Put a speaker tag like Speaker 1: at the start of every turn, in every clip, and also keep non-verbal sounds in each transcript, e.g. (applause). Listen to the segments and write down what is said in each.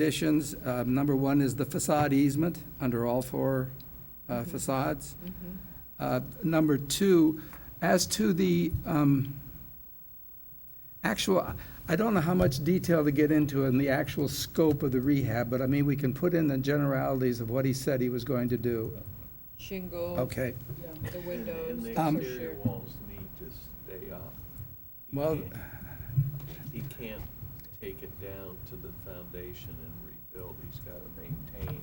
Speaker 1: conditions, uh, number one is the facade easement under all four uh,
Speaker 2: Mm-hmm.
Speaker 1: facades. Uh, Number two, as to the um, actual, I don't know how much detail to get into in the actual scope of the rehab, but I mean, we can put in the generalities of what he said he was going to do.
Speaker 2: Shingle,
Speaker 1: Okay,
Speaker 2: the windows,
Speaker 3: And the
Speaker 1: Um,
Speaker 3: exterior walls need to stay up. He
Speaker 1: Well-
Speaker 3: can't- He can't take it down to the foundation and rebuild. He's got to maintain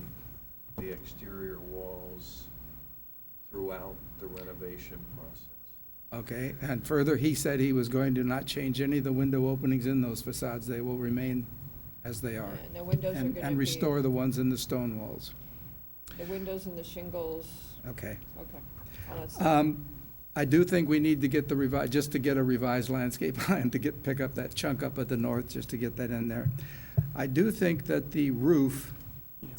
Speaker 3: the exterior walls throughout the renovation process. (laughs)
Speaker 1: okay. And further, he said he was going to not change any of the window openings in those facades. They will remain as they are.
Speaker 2: and the windows are
Speaker 1: and-
Speaker 2: gonna be.
Speaker 1: And restore the ones in the stone walls.
Speaker 2: The windows and the shingles,
Speaker 1: Okay.
Speaker 2: okay. Well, that's-
Speaker 1: Um, I do think we need to get the revised, just to get a revised landscape (laughs) plan, to get, pick up that chunk up at the north, just to get that in there. I do think that the roof,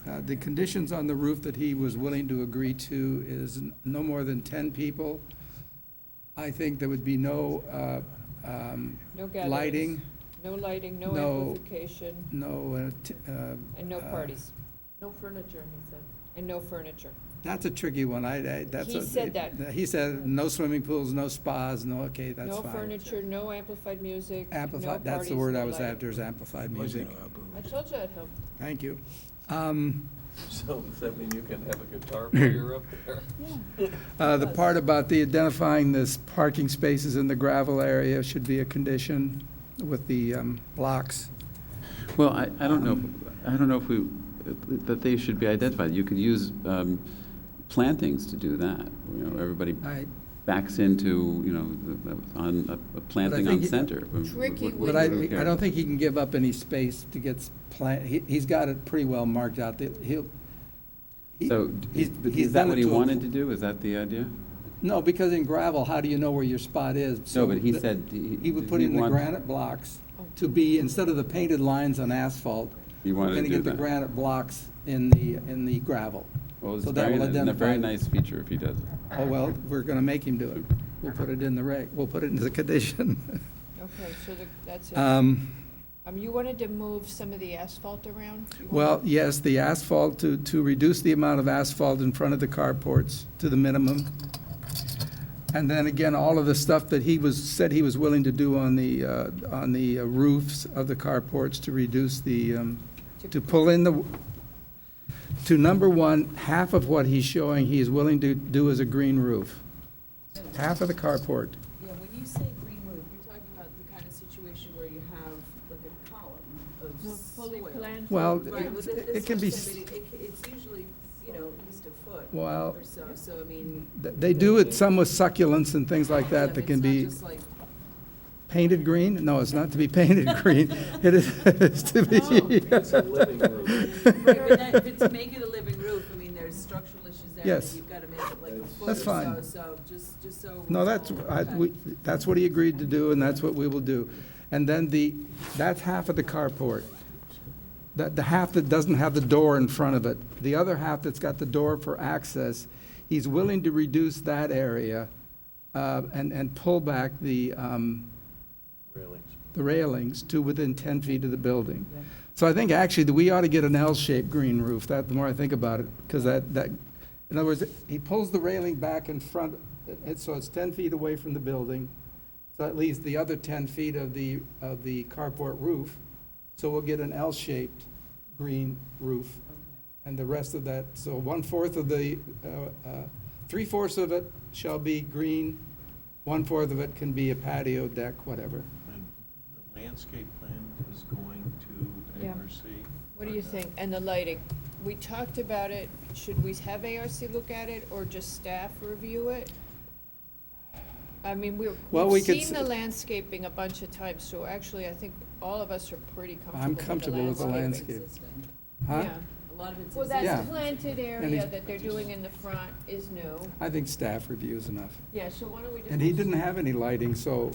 Speaker 1: uh, the conditions on the roof that he was willing to agree to is n- no more than 10 people. I think there would be no uh, um,
Speaker 2: No gatherings.
Speaker 1: lighting,
Speaker 2: No lighting, no
Speaker 1: No.
Speaker 2: amplification,
Speaker 1: no. uh, t- uh,
Speaker 2: and no
Speaker 1: uh,
Speaker 2: parties,
Speaker 4: No furniture, he said.
Speaker 2: and no furniture.
Speaker 1: That's a tricky one. I, I- that's.
Speaker 2: He
Speaker 1: a-
Speaker 2: said that.
Speaker 1: He said, no swimming pools, no spas, no, okay, that's
Speaker 2: No
Speaker 1: fine.
Speaker 2: furniture, no amplified music, no
Speaker 1: Amplified, that's the
Speaker 2: parties,
Speaker 1: word
Speaker 2: no
Speaker 1: I was
Speaker 2: lighting.
Speaker 1: after, is amplified music.
Speaker 2: I told you I'd help.
Speaker 1: Thank you. Um,
Speaker 3: So does that mean you can have a
Speaker 1: (laughs)
Speaker 3: guitar player up there? (laughs)
Speaker 1: uh, The part about the identifying this parking spaces in the gravel area should be a condition with the um, blocks.
Speaker 5: Well, I, I don't know, if- I don't know if we, that they should be identified. You could use um, plantings to do that. You know, everybody
Speaker 1: I-
Speaker 5: backs into, you know, the- the- on, a- a planting
Speaker 1: think
Speaker 5: on
Speaker 1: it-
Speaker 5: center. What-
Speaker 2: Tricky
Speaker 5: what-
Speaker 2: with-
Speaker 1: But
Speaker 5: what-
Speaker 1: I,
Speaker 5: who
Speaker 1: I
Speaker 5: cares?
Speaker 1: don't think he can give up any space to get s- plant, he, he's got it pretty well marked out. that He'll. he-
Speaker 5: So,
Speaker 1: he's-
Speaker 5: but
Speaker 1: he's
Speaker 5: is
Speaker 1: done
Speaker 5: that what
Speaker 1: it
Speaker 5: he
Speaker 1: to a-
Speaker 5: wanted to do? Is that the idea?
Speaker 1: No, because in gravel, how do you know where your spot is? So
Speaker 5: No, but he
Speaker 1: the-
Speaker 5: said he-
Speaker 1: He would put
Speaker 5: he
Speaker 1: in the
Speaker 5: want-
Speaker 1: granite blocks to be, instead of the painted lines on asphalt,
Speaker 5: He wanted
Speaker 1: we're
Speaker 5: to
Speaker 1: gonna
Speaker 5: do
Speaker 1: get the
Speaker 5: that.
Speaker 1: granite blocks in the, in the gravel.
Speaker 5: Well, it's
Speaker 1: So that
Speaker 5: very,
Speaker 1: will
Speaker 5: ni- it's a
Speaker 1: identify-
Speaker 5: very nice feature if he does it.
Speaker 1: Oh, well, we're gonna make him do it. We'll put it in the reg, we'll put it into the condition. (laughs)
Speaker 2: Okay, so the- that's it.
Speaker 1: Um,
Speaker 2: Um, You wanted to move some of the asphalt around? You wanted-
Speaker 1: Well, yes, the asphalt, to, to reduce the amount of asphalt in front of the carports to the minimum. And then again, all of the stuff that he was, said he was willing to do on the, uh, on the roofs of the carports to reduce the, um, to pull in the, to number one, half of what he's showing he is willing to do is a green roof. Half of the carport.
Speaker 4: Yeah, when you say green roof, you're talking about the kind of situation where you have like a column of
Speaker 2: No,
Speaker 4: soil.
Speaker 2: Fully planned.
Speaker 1: Well,
Speaker 4: Right, well,
Speaker 1: Oh, it-
Speaker 4: thi-
Speaker 1: it
Speaker 4: this
Speaker 1: can be,
Speaker 4: one's gonna be- it c- It's usually, you know, at least a foot
Speaker 1: well,
Speaker 4: or so, so I mean.
Speaker 1: th- they do it some with succulents and things like
Speaker 4: yeah,
Speaker 1: that that
Speaker 4: it's
Speaker 1: can
Speaker 4: not
Speaker 1: be. (laughs)
Speaker 4: just like-
Speaker 1: Painted green? No, it's not to be painted (laughs) green. It is it is to be.
Speaker 3: Oh.
Speaker 1: (laughs)
Speaker 3: It's a living room.
Speaker 4: Right, but that, but to make it a living roof, I mean, there's structural issues there.
Speaker 1: Yes.
Speaker 4: that You've gotta make it like a
Speaker 3: That's-
Speaker 4: foot or
Speaker 1: That's
Speaker 4: so,
Speaker 1: fine.
Speaker 4: so just, just so.
Speaker 1: No, that's, I, we, that's what he agreed to do, and that's what we will do. And then the, that's half of the carport. That, the half that doesn't have the door in front of it. The other half that's got the door for access, he's willing to reduce that area, uh, and, and pull back the, um,
Speaker 3: Railings.
Speaker 1: the railings to within 10 feet of the building. So I think actually that we ought to get an L-shaped green roof, that, the more I think about it, because that, that, in other words, he pulls the railing back in front, and so it's 10 feet away from the building, so that leaves the other 10 feet of the, of the carport roof, so we'll get an L-shaped green roof, and the rest of that, so one-fourth of the, uh, uh, three-fourths of it shall be green, one-fourth of it can be a patio deck, whatever.
Speaker 3: And The landscape plan is going to
Speaker 2: Yeah.
Speaker 3: oversee.
Speaker 2: What do you
Speaker 3: uh,
Speaker 2: think? And the lighting? We talked about it. Should we have ARC look at it or just staff review it? I mean, we're,
Speaker 1: Well,
Speaker 2: we've
Speaker 1: we could
Speaker 2: seen
Speaker 1: s-
Speaker 2: the landscaping a bunch of times, so actually I think all of us are pretty
Speaker 1: I'm
Speaker 2: comfortable with the
Speaker 1: comfortable with the
Speaker 2: landscaping.
Speaker 1: landscape.
Speaker 4: Existing.
Speaker 1: Huh?
Speaker 2: Yeah.
Speaker 4: A lot of it's.
Speaker 2: Well,
Speaker 1: Yeah.
Speaker 2: that
Speaker 4: existing.
Speaker 2: planted
Speaker 1: And
Speaker 2: area
Speaker 1: he's-
Speaker 2: that they're doing in the front is new.
Speaker 1: I think staff review is enough.
Speaker 2: Yeah, so why don't we just?
Speaker 1: And he didn't have any lighting, so,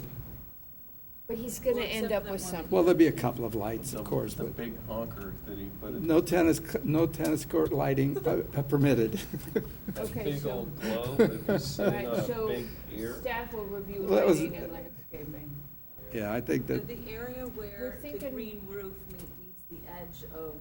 Speaker 2: But he's gonna
Speaker 4: Well,
Speaker 2: end
Speaker 4: except
Speaker 2: up
Speaker 4: that
Speaker 2: with
Speaker 4: one-
Speaker 2: something.
Speaker 1: well, there'll be a couple of lights, of
Speaker 3: The-
Speaker 1: course,
Speaker 3: The
Speaker 1: but
Speaker 3: big honker that he put in.
Speaker 1: no tennis, c- no tennis court lighting uh, permitted.
Speaker 3: That
Speaker 2: Okay,
Speaker 3: big
Speaker 2: so-
Speaker 3: old globe that was sitting
Speaker 2: Right,
Speaker 3: on a
Speaker 2: so
Speaker 3: big ear.
Speaker 2: staff will review
Speaker 1: Well, that was-
Speaker 2: lighting and landscaping.
Speaker 1: Yeah, I think that,
Speaker 4: The the area where the
Speaker 2: thinking-
Speaker 4: green roof meet- meets the edge of